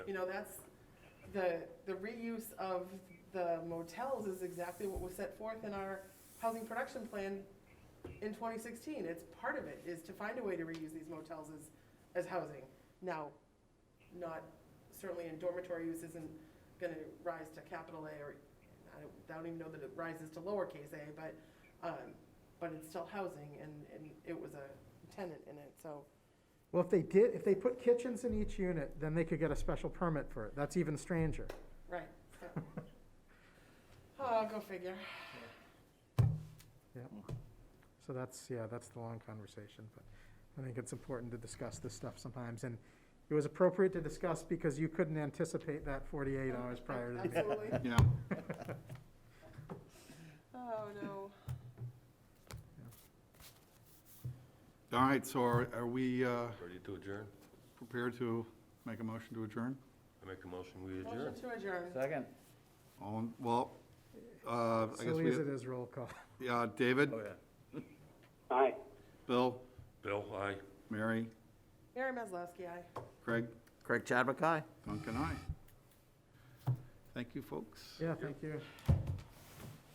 You know, that's, the, the reuse of the motels is exactly what was set forth in our housing production plan in twenty sixteen. It's part of it, is to find a way to reuse these motels as, as housing. Now, not, certainly in dormitory use isn't gonna rise to capital A or, I don't, I don't even know that it rises to lowercase a, but, um, but it's still housing and, and it was a tenant in it, so. Well, if they did, if they put kitchens in each unit, then they could get a special permit for it. That's even stranger. Right. Oh, go figure. So that's, yeah, that's the long conversation, but I think it's important to discuss this stuff sometimes. And it was appropriate to discuss because you couldn't anticipate that 48 hours prior to the meeting. Absolutely. Yeah. Oh, no. All right, so are, are we uh, Ready to adjourn? prepared to make a motion to adjourn? I make a motion, we adjourn. Motion to adjourn. Second. All, in- well, uh, I guess Silly as it we, is, roll call. yeah, David, Aye. Bill, Bill, aye. Mary, Mary Maslowski, aye. Craig, Craig Chadwick, aye. Duncan, I. Thank you, folks. Yeah, thank you.